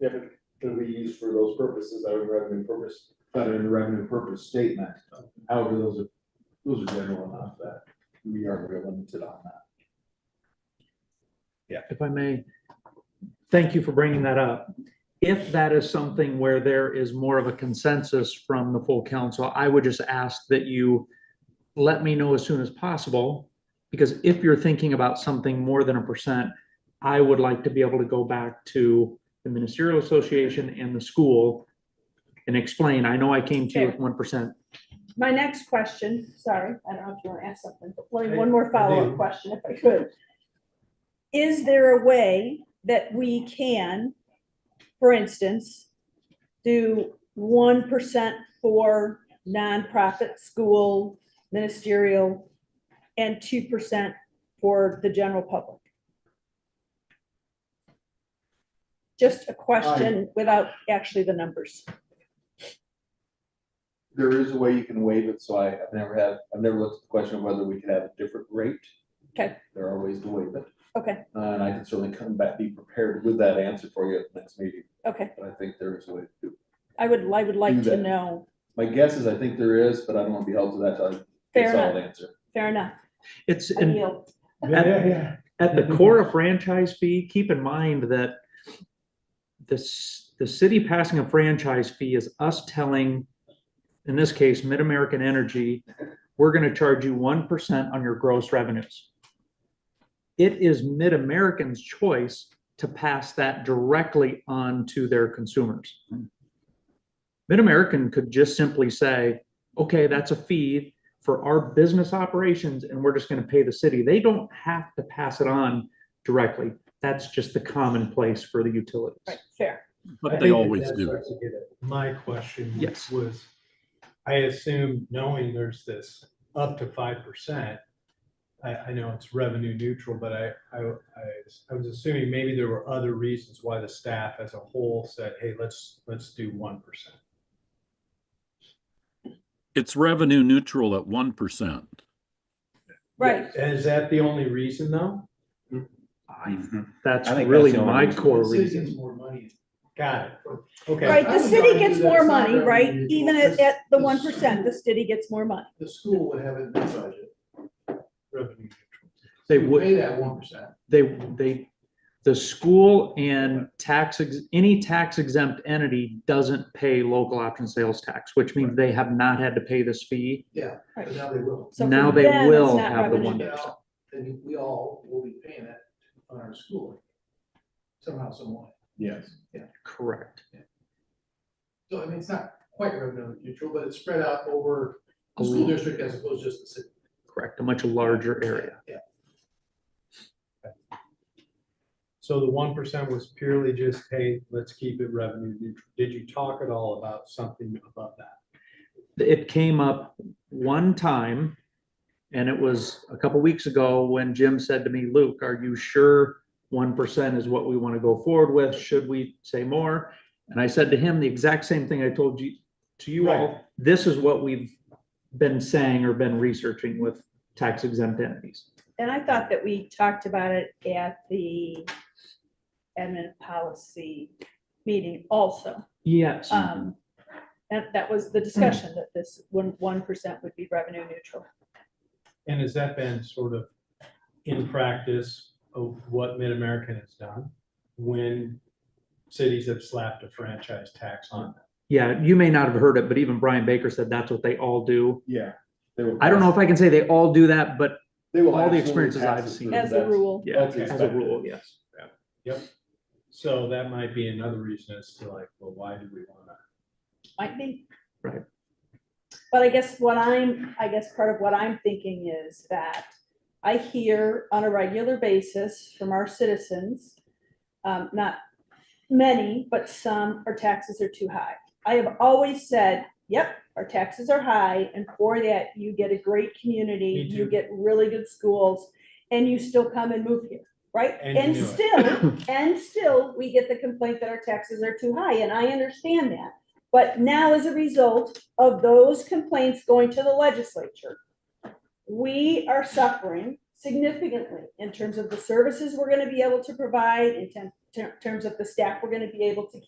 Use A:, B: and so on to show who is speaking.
A: different can be used for those purposes, out of revenue purpose,
B: that are in the revenue purpose statement. However, those are, those are general enough that we are very limited on that.
C: if I may, thank you for bringing that up. If that is something where there is more of a consensus from the full council, I would just ask that you let me know as soon as possible, because if you're thinking about something more than a percent, I would like to be able to go back to the ministerial association and the school and explain, I know I came to you with one percent.
D: My next question, sorry, I don't know if you want to ask something, but one one more follow-up question if I could. Is there a way that we can, for instance, do one percent for nonprofit, school, ministerial, and two percent for the general public? Just a question without actually the numbers.
B: There is a way you can waive it, so I, I've never had, I've never looked at the question of whether we could have a different rate.
D: Okay.
B: There are ways to waive it,
D: Okay,
B: uh, and I can certainly come back, be prepared with that answer for you at the next meeting,
D: okay.
B: but I think there is a way to do. it.
D: I would, I would like
B: Do
D: to
B: that.
D: know
B: My guess is I think there is, but I don't want to be held to that, till I get
D: Fair
B: a solid answer.
D: Fair enough.
C: It's,
D: I
C: and
D: yield.
C: Yeah,
B: yeah.
C: at the core of franchise fee, keep in mind that this, the city passing a franchise fee is us telling, in this case, Mid-American Energy, we're gonna charge you one percent on your gross revenues. It is Mid-American's choice to pass that directly on to their consumers. Mid-American could just simply say, okay, that's a fee for our business operations and we're just going to pay the city. They don't have to pass it on directly. That's just the commonplace for the utilities.
D: Right, fair.
E: But
F: I
E: they
F: think that
E: always
F: that's
E: do.
F: what you get at. My question
C: Yes.
F: was, I assume knowing there's this up to five percent. I, I know it's revenue neutral, but I, I, I- I was assuming maybe there were other reasons why the staff as a whole said, hey, let's, let's do one percent.
E: It's revenue neutral at one percent.
D: Right.
F: Is that the only reason though?
C: I- That's
B: I think
C: really
B: that's the
C: my
B: only
C: core
G: The city gets
C: reason.
G: more money.
F: Got it. Okay.
D: Right,
G: I
D: the
G: would
D: city
G: argue
D: gets
G: that
D: more
G: it's not
D: money,
G: revenue
D: right?
G: neutral.
D: Even at,
G: This-
D: at the
G: this-
D: one percent, the city gets more money.
G: The school would have it in their budget.
F: Revenue neutral.
C: They
G: We
C: would,
G: Pay that one percent.
C: they, they, the school and tax, ex- any tax exempt entity doesn't pay local option sales tax, which means they have not had to pay this fee.
G: But now they will.
D: So for
C: Now they
D: them, it's
C: will
D: not
C: have the
D: revenue
C: one
G: Now,
D: neutral.
C: percent.
G: Then we all will be paying that on our school. Somehow, some way.
B: Yes.
C: Correct.
G: So I mean, it's not quite revenue neutral, but it's spread out over the
C: A
G: school
C: l-
G: district as opposed to just the city.
C: Correct. A much larger area.
G: Yeah.
F: So the one percent was purely just, hey, let's keep it revenue neutral. Did you talk at all about something above that?
C: it came up one time and it was a couple weeks ago when Jim said to me, Luke, are you sure one percent is what we want to go forward with? Should we say more? And I said to him the exact same thing I told you to you all. This is what we've been saying or been researching with tax exempt entities.
D: And I thought that we talked about it at the admin policy meeting also.
C: Yes.
D: Um, that, that was the discussion that this one, one percent would be revenue neutral.
F: And has that been sort of in practice of what Mid-American has done when cities have slapped a franchise tax on them?
C: Yeah, you may not have heard it, but even Brian Baker said that's what they all do.
B: Yeah. they will
C: I don't know
B: pass-
C: if I can say they all do that, but
B: They will.
C: all the
B: absolutely
C: experiences
B: pass
C: I've
B: it
C: seen.
B: through.
D: As a
B: That's-
D: rule,
C: yeah,
B: That's
C: as a
B: expected.
C: rule, yes.
F: So that might be another reason as to like, well, why do we want to?
D: might be.
C: Right.
D: But I guess what I'm, I guess part of what I'm thinking is that I hear on a regular basis from our citizens, um, not many, but some, our taxes are too high. I have always said, yep, our taxes are high, and for that, you get a great community,
F: Me
D: you
F: too.
D: get really good schools, and you still come and move here, right?
F: And you
D: And
F: knew it.
D: still, and still, we get the complaint that our taxes are too high, and I understand that. But now, as a result of those complaints going to the legislature, we are suffering significantly in terms of the services we're gonna be able to provide, in tem- ter- terms of the staff we're gonna be able to